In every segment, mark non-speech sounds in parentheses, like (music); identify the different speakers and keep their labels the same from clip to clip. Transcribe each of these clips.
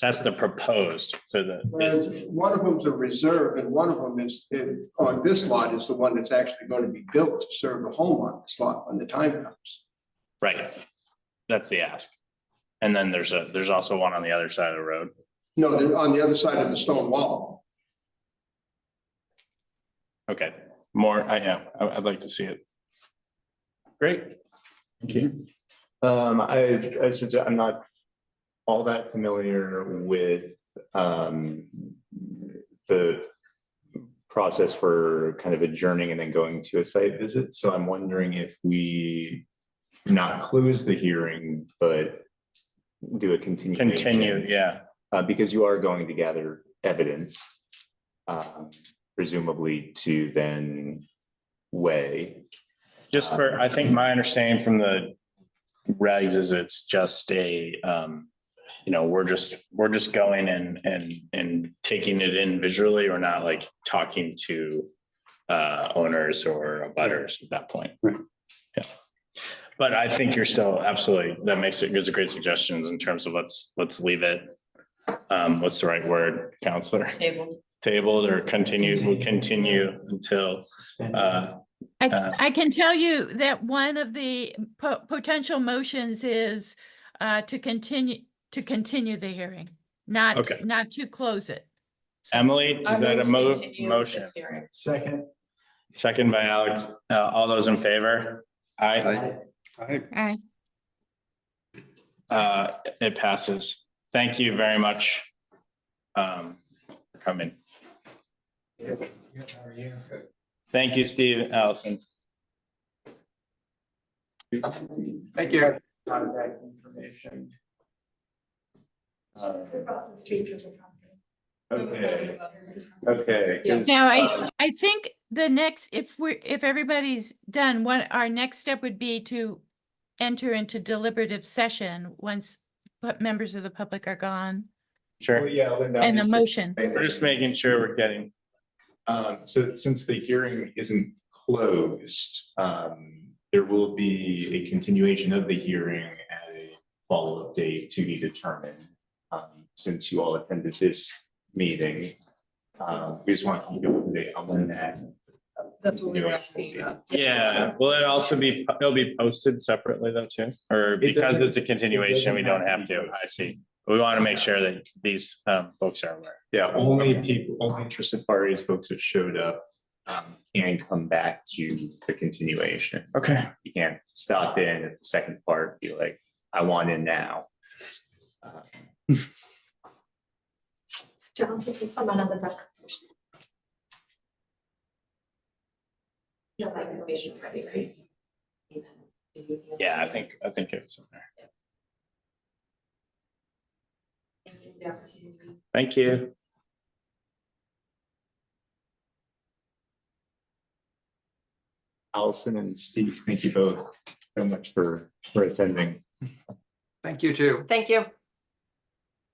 Speaker 1: That's the proposed, so
Speaker 2: Whereas
Speaker 1: the,
Speaker 2: one of them's a reserve and one of them is, is- on this lot is the one that's actually going to be built to serve a home on this lot when the time comes.
Speaker 1: right. That's the ask. And then there's a, there's also one on the other side of the road.
Speaker 2: No, they're on the other side of the stone wall.
Speaker 1: Okay, more, I know, I- I'd like to see it. Great.
Speaker 3: Thank you. Um, I, I suggest, I'm not all that familiar with, um, the process for kind of adjourning and then going to a site visit, so I'm wondering if we not close the hearing, but do a continuation.
Speaker 1: Continue, yeah.
Speaker 3: Uh, because you are going to gather evidence, um, presumably to then weigh.
Speaker 1: Just for, I think my understanding from the regs is it's just a, um, you know, we're just, we're just going and, and, and taking it in visually. We're not like talking to uh, owners or butters at that point.
Speaker 4: Right.
Speaker 1: Yeah. But I think you're still absolutely, that makes it, gives a great suggestions in terms of let's, let's leave it. Um, what's the right word, counselor? (laughs)
Speaker 5: Table.
Speaker 1: Tabled or continued, we'll continue until, uh,
Speaker 6: I,
Speaker 1: Uh,
Speaker 6: c- I can tell you that one of the po- potential motions is uh, to continue, to continue the hearing, not,
Speaker 1: Okay.
Speaker 6: not to close it.
Speaker 1: Emily,
Speaker 5: I
Speaker 1: is that a
Speaker 5: move to
Speaker 1: mo-
Speaker 5: continue
Speaker 1: motion?
Speaker 5: this hearing.
Speaker 7: Second.
Speaker 1: Second by Alex. Uh, all those in favor? Aye.
Speaker 4: Aye.
Speaker 6: Aye.
Speaker 1: Uh, it passes. Thank you very much. Um, for coming. Thank you, Steve and Allison.
Speaker 2: Thank you.
Speaker 7: Contact information.
Speaker 5: Across the street from the property.
Speaker 3: Uh, Okay, okay. 'cause,
Speaker 6: Now,
Speaker 3: um,
Speaker 1: Uh,
Speaker 6: I, I think the next, if we're, if everybody's done, what our next step would be to enter into deliberative session once pu- members of the public are gone
Speaker 3: Well,
Speaker 1: Sure.
Speaker 3: oh, yeah, Linda.
Speaker 6: and a
Speaker 3: just-
Speaker 6: motion.
Speaker 1: We're just making sure we're getting,
Speaker 3: Um, so since the hearing isn't closed, um, there will be a continuation of the hearing at a follow-up date to be determined. Um, since you all attended this meeting, um, we just want to keep you up to date on when that.
Speaker 5: That's what we
Speaker 3: continuation will
Speaker 5: were asking
Speaker 3: be.
Speaker 5: about.
Speaker 1: yeah, will it also be, it'll be posted separately though too? Or because
Speaker 3: doesn't-
Speaker 1: it's a continuation, we
Speaker 3: it doesn't
Speaker 1: don't
Speaker 3: have
Speaker 1: have
Speaker 3: to be
Speaker 1: to. I see. We want to make sure that these, um, folks are aware.
Speaker 3: Yeah, only people, only interested parties, folks that showed up, um, can come back to the continuation.
Speaker 1: Okay.
Speaker 3: You can't stop in at the second part, be like, I want in now. Uh,
Speaker 5: You have that information already, right?
Speaker 1: Yeah, I think, I think it's in there. Thank you.
Speaker 3: Allison and Steve, thank you both so much for, for attending.
Speaker 2: Thank you too.
Speaker 8: Thank you.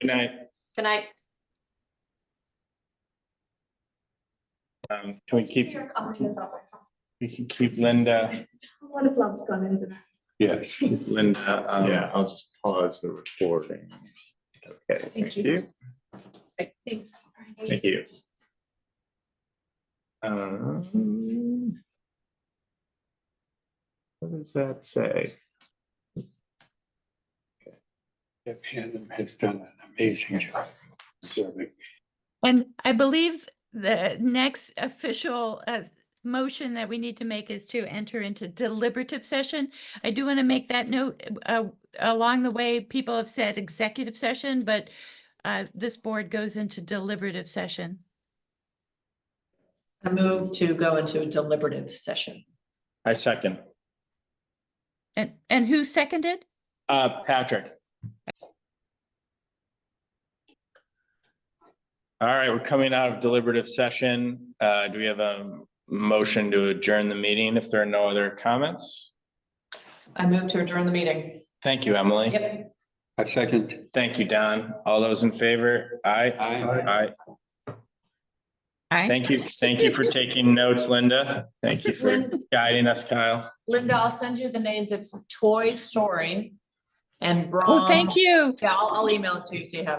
Speaker 1: Good night.
Speaker 8: Good night.
Speaker 1: Um, can we keep,
Speaker 5: Your comment about my phone.
Speaker 1: we can keep Linda,
Speaker 5: What if love's gone into that?
Speaker 3: Yes.
Speaker 1: Linda, um,
Speaker 3: Yeah, I'll just pause the recording. Okay, thank
Speaker 5: you.
Speaker 3: you.
Speaker 5: Okay, Thanks.
Speaker 3: Thank you. Um, What does that say?
Speaker 4: Deb Hanum has done an amazing job serving.
Speaker 6: And I believe the next official uh, s- motion that we need to make is to enter into deliberative session. I do want to make that note. uh, Along the way, people have said executive session, but uh, this board goes into deliberative session.
Speaker 5: I move to go into a deliberative session.
Speaker 1: I second.
Speaker 6: And, and who seconded?
Speaker 1: Uh, Patrick. All right, we're coming out of deliberative session. Uh, do we have a motion to adjourn the meeting if there are no other comments?
Speaker 5: I move to adjourn the meeting.
Speaker 1: Thank you, Emily.
Speaker 5: Yep.
Speaker 4: I second.
Speaker 1: Thank you, Don. All those in favor? Aye. Aye.
Speaker 6: Aye.
Speaker 1: Thank you. Thank you for taking notes, Linda. Thank you for guiding us, Kyle.
Speaker 5: Linda, I'll send you the names. It's Toy Story and Brom.
Speaker 6: Oh, thank you.
Speaker 5: Yeah, I'll, I'll email it to you so you have it.